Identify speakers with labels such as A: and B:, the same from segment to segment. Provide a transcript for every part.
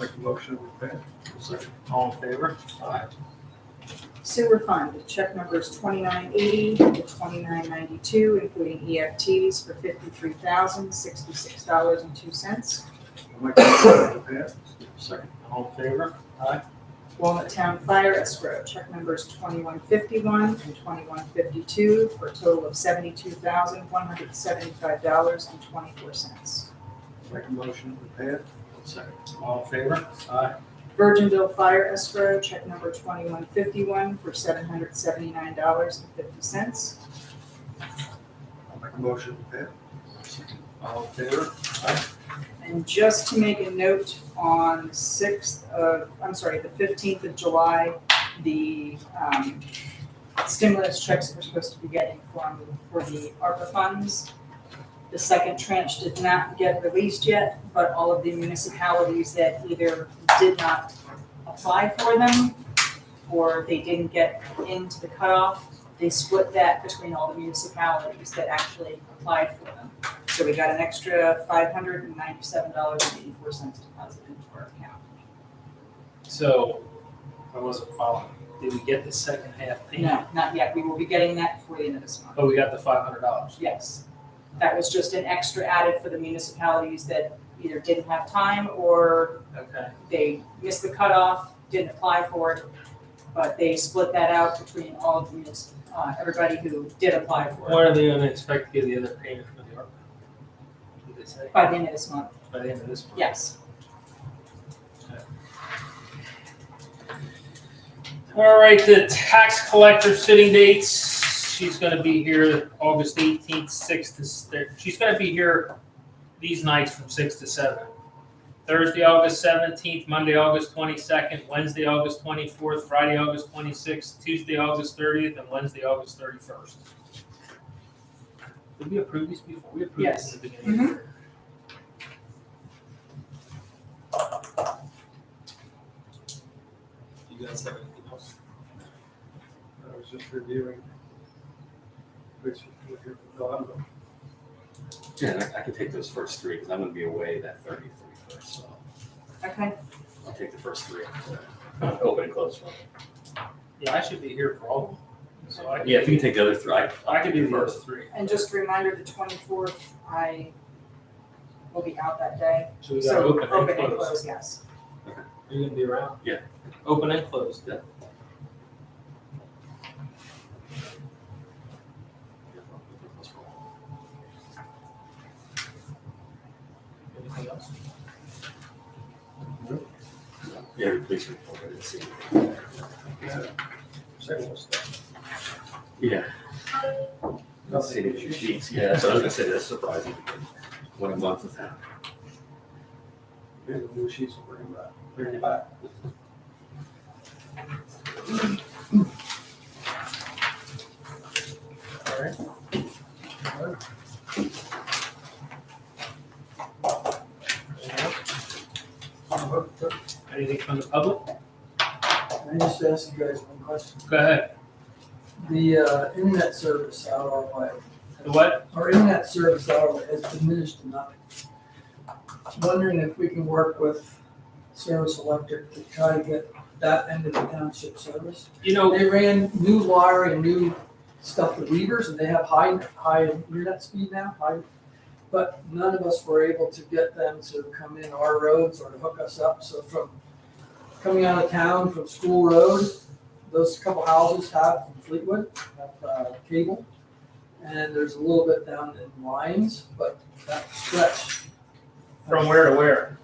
A: Make a motion to pay. All in favor? Aye.
B: Sewer fund, check numbers twenty-nine eighty to twenty-nine ninety-two, including EFTs for fifty-three thousand, sixty-six dollars and two cents.
A: Make a motion to pay. Second. All in favor? Aye.
B: Walnut Town Fire Escrow, check numbers twenty-one fifty-one and twenty-one fifty-two for a total of seventy-two thousand, one hundred and seventy-five dollars and twenty-four cents.
A: Make a motion to pay. Second. All in favor? Aye.
B: Virginville Fire Escrow, check number twenty-one fifty-one for seven hundred seventy-nine dollars and fifty cents.
A: I'll make a motion to pay. Second. All in favor? Aye.
B: And just to make a note, on the sixth of, I'm sorry, the fifteenth of July, the um, stimulus checks that we're supposed to be getting from, for the ARPA funds. The second tranche did not get released yet, but all of the municipalities that either did not apply for them or they didn't get into the cutoff, they split that between all the municipalities that actually applied for them. So we got an extra five hundred and ninety-seven dollars and eighty-four cents deposited into our account.
C: So, I wasn't following. Did we get the second half payment?
B: No, not yet, we will be getting that before the end of this month,
C: Oh, we got the five hundred dollars.
B: yes. That was just an extra added for the municipalities that either didn't have time or
C: Okay.
B: they missed the cutoff, didn't apply for it. But they split that out between all of the, munis- uh, everybody who did apply for it
C: Why are they gonna expect to get the other payment from the ARPA? Did they say?
B: by the end of this month,
C: By the end of this month?
B: yes.
C: All right, the tax collector sitting dates, she's gonna be here August eighteenth, sixth to, s- she's gonna be here these nights from six to seven. Thursday, August seventeenth, Monday, August twenty-second, Wednesday, August twenty-fourth, Friday, August twenty-sixth, Tuesday, August thirtieth, and Wednesday, August thirty-first. Did we approve these before? We approved
B: Yes.
C: these at the beginning of the
B: Mm-hmm.
C: year.
D: You guys have anything else?
A: I was just reviewing. Which, if you're, no, I'm not.
E: Yeah, I, I can take those first three because I'm going to be away that 30th, 31st. So
B: Okay,
E: I'll take the first three. Uh, Open and close one.
C: Yeah, I should be here for all of them, so I.
E: Yeah, if you can take the other three, I,
C: I could do the
E: first.
C: first three.
B: and just a reminder, the twenty-fourth, I will be out that day.
C: So we got
B: So
C: open and
B: and
C: close.
B: close, yes.
C: Are you gonna be around?
E: Yeah.
C: Open and closed. Anything else?
E: Yeah, the police report. I didn't see it.
A: Second was that.
E: Yeah. I didn't see it in your sheets. Yeah, so I was going to say that's surprising. What a month has happened.
A: Here's the new sheets, we'll bring them back. Bring them back.
C: All right. Anything from the public?
F: Can I just ask you guys one question?
C: Go ahead.
F: The uh, internet service out of our,
C: The what?
F: our internet service out of has diminished enough. Wondering if we can work with Service Electric to try to get that end of the township service.
C: You know,
F: They ran new wire and new stuff to Weavers, and they have high, high internet speed now, high. But none of us were able to get them to come in our roads or to hook us up, so from coming out of town from School Road, those couple houses have from Fleetwood, have, uh, cable. And there's a little bit down in Lyons, but that stretch.
C: from where to where?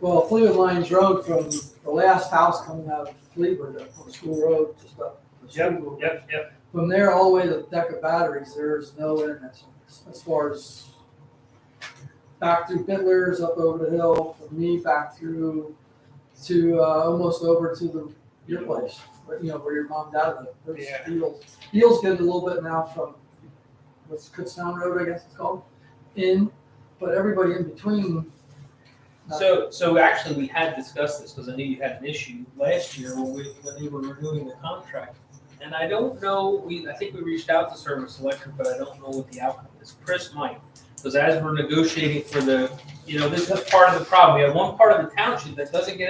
F: Well, Fleetwood Lyons Road from the last house coming out of Fleetwood, uh, from School Road, just up. the school.
C: Yep, yep.
F: From there all the way to the deck of batteries, there's no internet service as far as back through Bittler's up over the hill, from me back through to uh, almost over to the your place, where, you know, where your mom dad lived. There's
C: Yeah.
F: Beals. Beals getting a little bit now from what's Kutztown Road, I guess it's called, in, but everybody in between. not-
C: So, so actually, we had discussed this because I knew you had an issue last year when we, when they were renewing the contract. And I don't know, we, I think we reached out to Service Electric, but I don't know what the outcome is. Chris might, because as we're negotiating for the
G: you know, this is part of the problem. We have one part of the township that doesn't get